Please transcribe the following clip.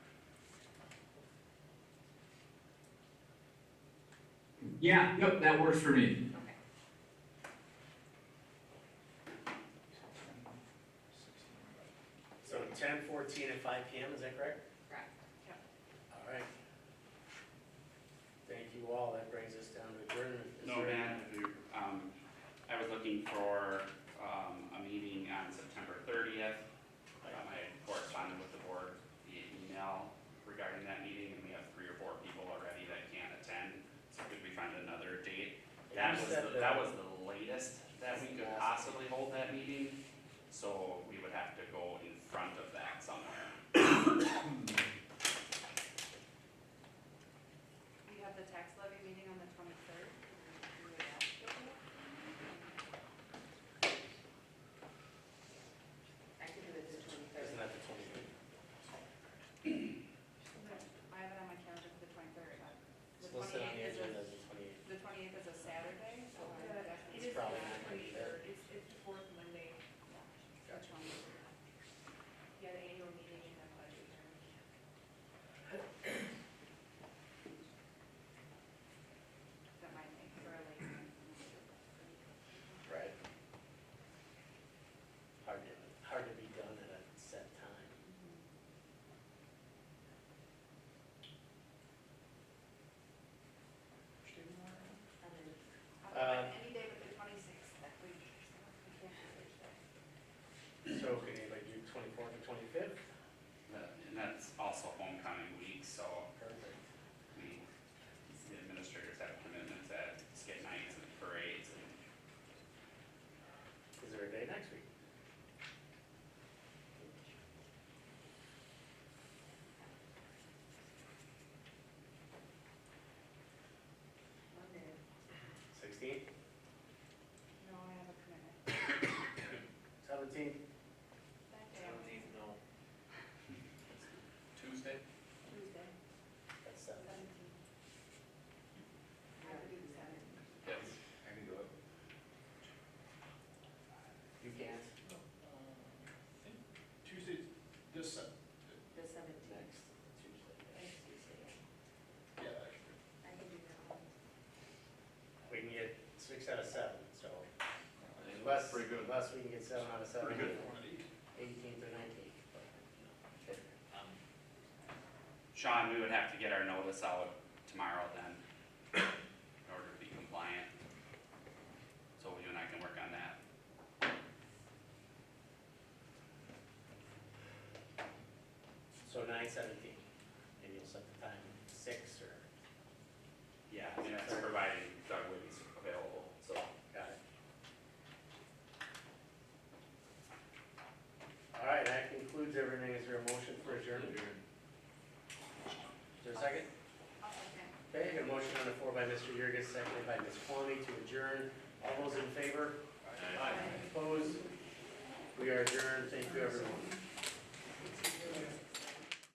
Yeah, yep, that works for me. Okay. So ten, fourteen, and five P M, is that correct? Correct. Yep. All right. Thank you all, that brings us down to adjournment. Is No, there- Dan, if you, um, I was looking for, um, a meeting on September thirtieth. Um, I had corresponded with the board via email regarding that meeting, and we have three or four people already that can't attend. So could we find another date? That You was, said the- that was the latest that we could possibly hold that meeting, so we would have to go in front of that somewhere. We have the tax levy meeting on the twenty-third. I could do it the Isn't twenty-third. that the twenty-fifth? I have it on my calendar for the twenty-third. The It's listed on 28th the is a- agenda as the twenty-eighth. The twenty-eighth is a Saturday, so I Yeah, definitely. It is probably the not gonna be there. 23rd. It's, it's the fourth Monday. Which one? Yeah, the annual meeting and the budget hearing. That might make for a late. Right. Hard to, hard to be done at a set time. Um, Otherwise, Um, Any day but the twenty-sixth that week. so we can't do it that. So can anybody do twenty-fourth or twenty-fifth? That- And that's also homecoming week, so Perfect. we, the administrators have commitments at skit nights and parades and Is there a day next week? Monday. Sixteenth, No, I have a commitment. seventeenth? That day, I'm no. Tuesday? Tuesday, That's seven. seventeen. I have to do the seventh. Yes. You can't? Tuesday, this, Sat- The seventeenth. Next Tuesday. yeah, actually. I can do that one. We can get six out of seven, so unless, unless we can get seven out of seven, Pretty good for one of these. eighteenth or nineteenth. but, you know, okay. Sean, we would have to get our notice out tomorrow then, in order to be compliant. So you and I can work on that. So nine seventeen, maybe you'll set the time, six or, Yeah. And that's providing Doug would be available, so. got it. All right, that concludes everything. Is there a motion for adjournment? Is there a second? I'll second. Okay, a motion on the floor by Mr. Yurgis, seconded by Ms. Conley to adjourn. All those in favor? Opposed? We are adjourned. Thank you, everyone.